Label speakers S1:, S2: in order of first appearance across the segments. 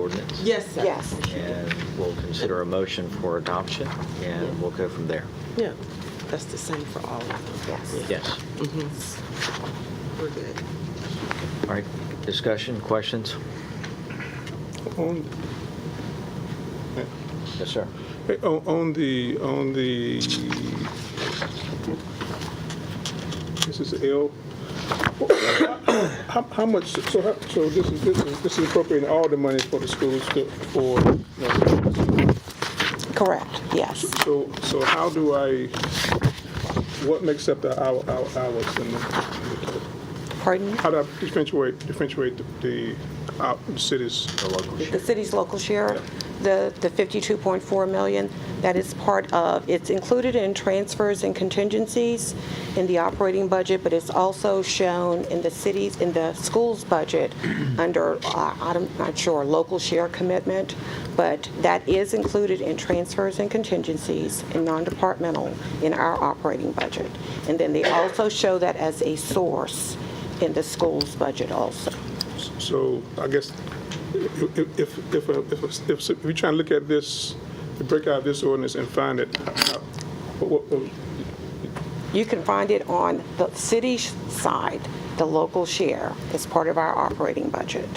S1: ordinance?
S2: Yes, sir.
S3: Yes.
S1: And we'll consider a motion for adoption, and we'll go from there.
S2: Yeah, that's the same for all of them.
S3: Yes.
S1: Yes.
S2: We're good.
S1: All right, discussion, questions?
S4: On,
S1: Yes, sir.
S4: eh, on on the, on the, this is L. How, how much, so, how- so this is, this is, this is appropriating all the money for the schools to, for,
S3: Correct, yes.
S4: so, so how do I, what makes up the hour, hour, hours in the,
S3: Pardon?
S4: how do I differentiate, differentiate the, out, the cities?
S1: The local
S3: The
S1: share.
S3: city's local share, the, the 52.4 million, that is part of, it's included in transfers and contingencies in the operating budget, but it's also shown in the cities, in the school's budget, under, uh, I'm not sure, local share commitment, but that is included in transfers and contingencies in non-departmental in our operating budget. And then they also show that as a source in the school's budget also.
S4: So I guess if, if, if, if, if- if, if we try and look at this, to break out this ordinance and find it, uh, what, what,
S3: You can find it on the city sh- side, the local share, as part of our operating budget.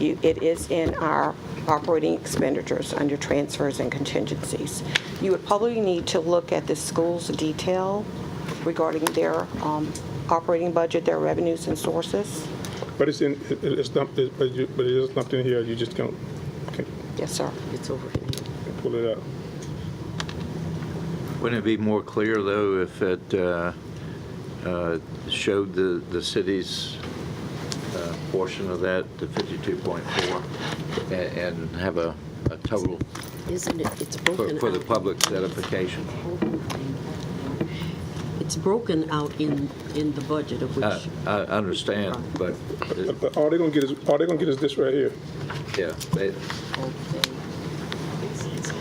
S3: You- It is in our operating expenditures under transfers and contingencies. You would probably need to look at the school's detail regarding their um, operating budget, their revenues and sources.
S4: but it's in, it- it's not, it- but you, but it's not in here, you just can't, can't
S3: Yes, sir.
S2: It's over here.
S4: pull it out.
S5: Wouldn't it be more clear, though, if it uh, uh, showed the, the city's uh, portion of that, the 52.4, a- and have a, a total
S6: Isn't it, it's
S5: for,
S6: broken
S5: for the
S6: out.
S5: public certification?
S6: It's broken out in, in the budget of
S5: I,
S6: which,
S5: I understand, but, uh,
S4: But- But all they're gonna get is, all they're gonna get is this right here.
S5: yeah, they-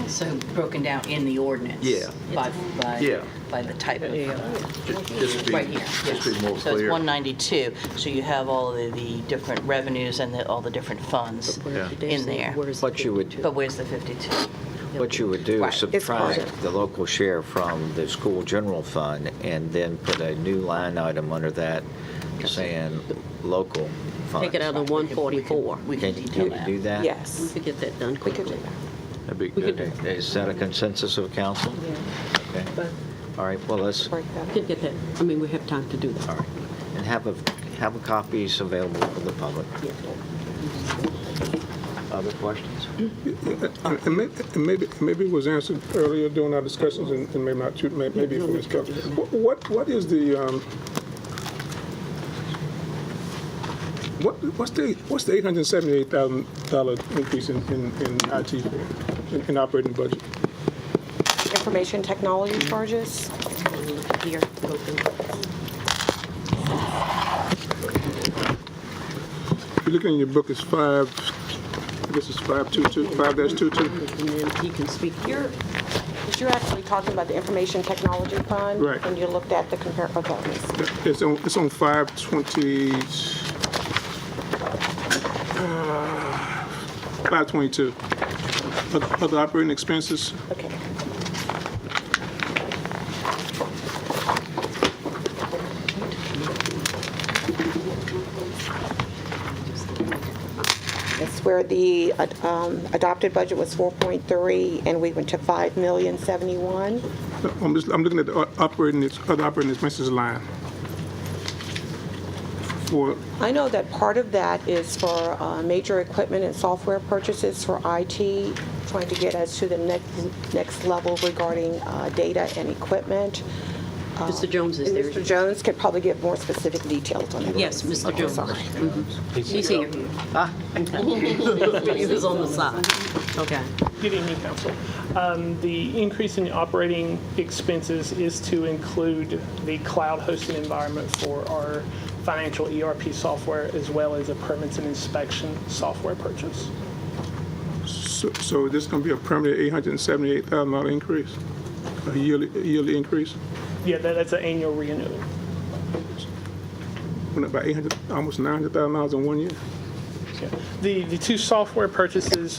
S7: So broken down in the ordinance?
S5: Yeah.
S7: By, by,
S5: Yeah.
S7: by the type of,
S5: ju- just be,
S7: right here.
S5: just be more
S7: So it's
S5: clear.
S7: 192, so you have all of the different revenues and the- all the different funds
S5: Yeah.
S7: in there.
S6: where's
S1: What you would,
S7: But where's the 52?
S1: what you would do
S7: Right,
S1: is
S7: it's
S1: subtract the local share from the school general fund and then put a new line item under that saying local funds.
S6: take it out of 144.
S7: We can
S1: Can you- can
S7: detail
S1: you
S7: that.
S1: do that?
S6: We
S3: Yes.
S6: could get that done
S3: We could
S6: quickly.
S3: do that.
S5: That'd be good.
S1: Is that a consensus of council? Okay. All right, well, let's,
S3: Break that.
S6: We could get that, I mean, we have time to do
S1: all
S6: that.
S1: right, and have a, have a copies available for the public. Other questions?
S4: And- And may- and maybe, maybe it was answered earlier during our discussions, and and maybe not, too- may- maybe for Ms. Kelly. Wh- What, what is the, um, what, what's the, what's the $878,000 increase in, in in IT, for- in- in operating budget?
S3: Information technology charges,
S6: Here, broken.
S4: If you look in your book, it's five, this is 522, 5-22,
S6: And then he can speak here.
S3: but you're actually talking about the information technology fund?
S4: Right.
S3: And you looked at the compare, okay, let me see.
S4: it's on, it's on 520, uh, 522. Oth- Other operating expenses?
S3: Okay. That's where the uh, um, adopted budget was 4.3, and we went to 5 million 71.
S4: I'm just, I'm looking at the o- operating, ex- other operating expenses line. For,
S3: I know that part of that is for uh, major equipment and software purchases for IT, trying to get us to the next, next level regarding uh, data and equipment.
S6: Mr. Jones is
S3: And
S6: there.
S3: Mr. Jones could probably give more specific details on that.
S6: Yes, Mr. Jones. Mhm. He's here.
S5: Ah.
S6: He was on the side. Okay.
S8: Good evening, council. Um, The increase in operating expenses is to include the cloud hosted environment for our financial ERP software as well as a permits and inspection software purchase.
S4: so so is this going to be a permanent $878,000 increase? A yearly, a yearly increase?
S8: Yeah, that- that's an annual renewal.
S4: Went up by 800, almost $900,000 in one year?
S8: Yeah. The, the two software purchases